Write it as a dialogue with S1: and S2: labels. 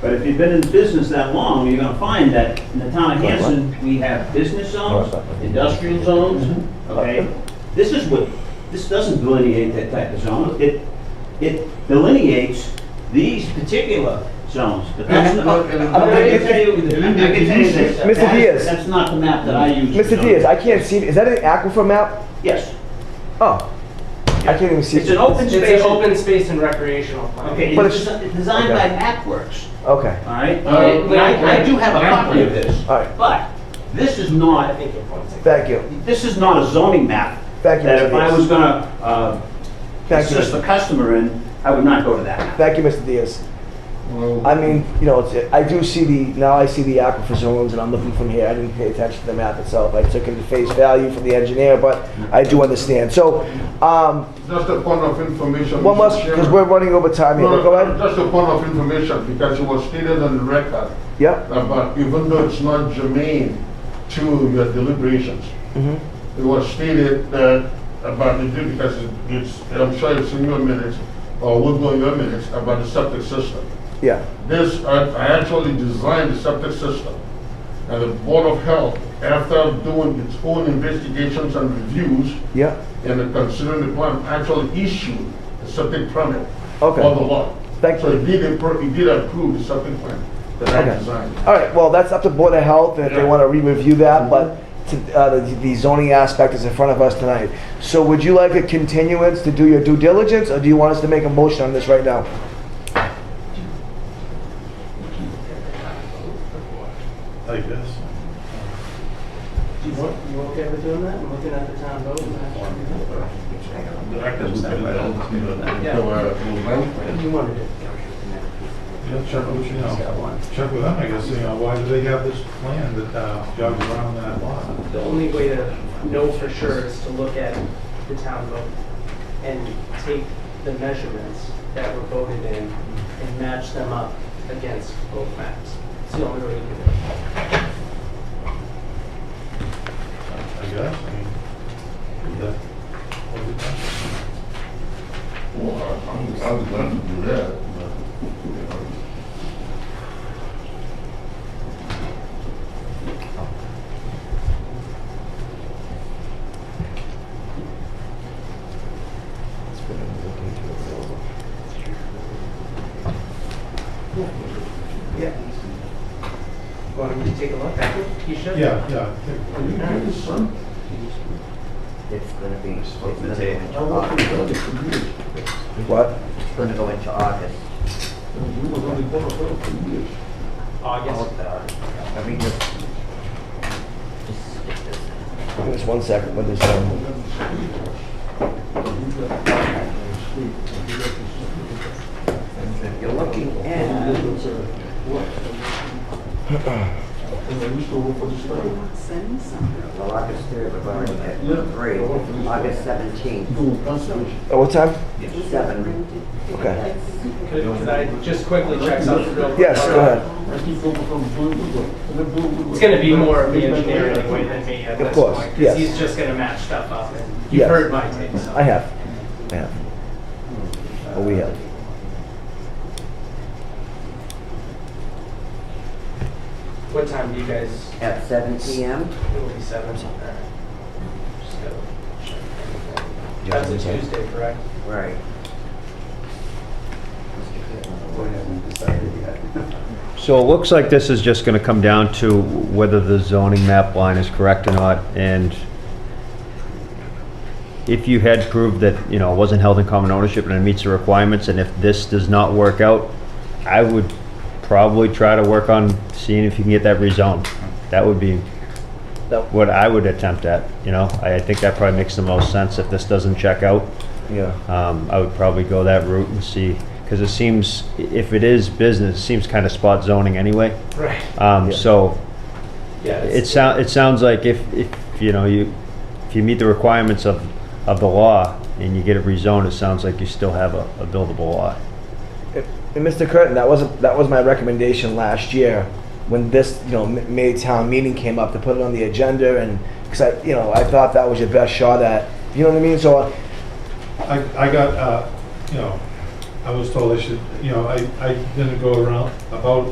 S1: But if you've been in business that long, you're gonna find that in the town of Hanson, we have business zones, industrial zones,
S2: Mm-hmm.
S1: okay? This is what, this doesn't delineate that type of zone. It, it delineates these particular zones, but that's not, I can tell you, I can tell you this.
S2: Mr.
S1: that's-
S2: Diaz.
S1: That's not the map that I use. for
S2: Mr.
S1: zoning.
S2: Diaz, I can't see, is that an aquifer map?
S1: Yes,
S2: Oh, I can't even see.
S1: it's an open
S3: It's
S1: space.
S3: an open space and recreational plan.
S1: Okay,
S2: But
S1: it's desi- designed by MapWorks,
S2: Okay,
S1: all right? And I, I do have a copy of this,
S2: all right,
S1: but this is
S3: I
S1: not,
S3: think your point's. taken.
S2: thank you,
S1: this is not a zoning map
S2: thank you,
S1: that
S2: Mr.
S1: if I was
S2: Diaz.
S1: gonna, uh,
S2: Thank you,
S1: assist the customer in, I would not go to that map.
S2: thank you, Mr. Diaz.
S4: Well,
S2: I mean, you know, it's, I do see the, now I see the aquifer zones and I'm looking from here, I didn't pay attention to the map itself, I took it at face value from the engineer, but I do understand, so, um,
S4: just a point of information.
S2: one
S4: Mr.
S2: last, because
S4: Chairman.
S2: we're running over time here,
S4: No,
S2: go ahead.
S4: Just a point of information, because it was stated on the record,
S2: Yep,
S4: about even though it's not germane to your deliberations,
S2: mhm,
S4: it was stated that about the, because it- it's, I'm sure it's in your minutes, or will go in your minutes, about the septic system.
S2: yeah,
S4: This, I I actually designed the septic system, and the Board of Health, after doing its own investigations and reviews,
S2: yeah,
S4: and considering the plan, actually issued a septic permit for the
S2: okay.
S4: lot.
S2: Thank
S4: So
S2: you.
S4: it did, appro- it did approve the septic plan that
S2: Okay.
S4: I designed.
S2: All right, well, that's up to Board of Health, and if they
S4: Yeah.
S2: want to re-review that, but to- uh, the the zoning aspect is in front of us tonight. So would you like a continuance to do your due diligence, or do you want us to make a motion on this right now?
S5: like this.
S3: You want- you okay with doing that? I'm looking at the town vote. and I- Yeah.
S4: So, uh, we'll vote.
S3: You wanted it.
S5: Yeah, check with, you know, check with them, I guess, you know, why do they have this plan that uh, jogs around that lot?
S3: The only way to know for sure is to look at the town vote and take the measurements that were voted in and match them up against both maps. It's the only way to do it.
S5: I guess, I mean, that, what do you think?
S4: Well, I- I'm- I would love to do that, but, you know.
S3: Yeah. Want me to take a look at it? You should.
S5: yeah, yeah, I think-
S4: Are you kidding, son?
S6: It's gonna be, it's gonna go into
S4: I work
S6: August.
S4: for the community.
S2: What?
S6: It's gonna go into August.
S4: And we were really going to work for years.
S6: All
S3: August.
S6: of the- I mean, just, just, it's just.
S2: Just one second, what is uh, that?
S4: We got the street. We got the street. We got the street.
S6: You're looking
S4: And
S6: at,
S4: it's, uh, what? And I used to work for the state.
S6: well, August third, we've already had
S4: Yeah.
S6: three, August seventeenth,
S4: Doing conservation.
S2: Uh, What time?
S6: seven.
S2: Okay,
S3: Could could I just quickly check something real quick?
S2: yes, go ahead.
S4: I keep over from Blue Woodward. And then Blue Woodward-
S3: It's gonna be more of the engineer anyway than me at
S2: Of
S3: this
S2: course,
S3: point. 'cause
S2: yes.
S3: He's just gonna match stuff up and
S2: Yes.
S3: you've heard my take, so. Hmm.
S2: I have, I have. Or we have.
S3: What time do you guys,
S6: at seven P M.
S3: it'll be seven? Alright. Just gotta check.
S2: Yeah,
S3: That's a
S2: okay.
S3: Tuesday, correct?
S6: Right.
S7: So it looks like this is just going to come down to whether the zoning map line is correct or not, and if you had proved that, you know, it wasn't held in common ownership and it meets the requirements, and if this does not work out, I would probably try to work on seeing if you can get that rezoned. That would be
S2: No.
S7: what I would attempt at, you know? I I think that probably makes the most sense if this doesn't check out.
S2: Yeah.
S7: Um, I would probably go that route and see, because it seems, i- if it is business, it seems kind of spot zoning anyway.
S3: Right.
S7: Um,
S2: Yeah.
S7: so
S3: Yeah.
S7: it sound, it sounds like if, if, you know, you, if you meet the requirements of, of the law and you get it rezoned, it sounds like you still have a, a buildable lot.
S2: And Mr. Curtin, that wasn't, that was my recommendation last year when this, you know, m- May town meeting came up to put it on the agenda and, because I, you know, I thought that was your best shot at, you know what I mean? So uh,
S5: I, I got, uh, you know, I was told I should, you know, I, I didn't go around about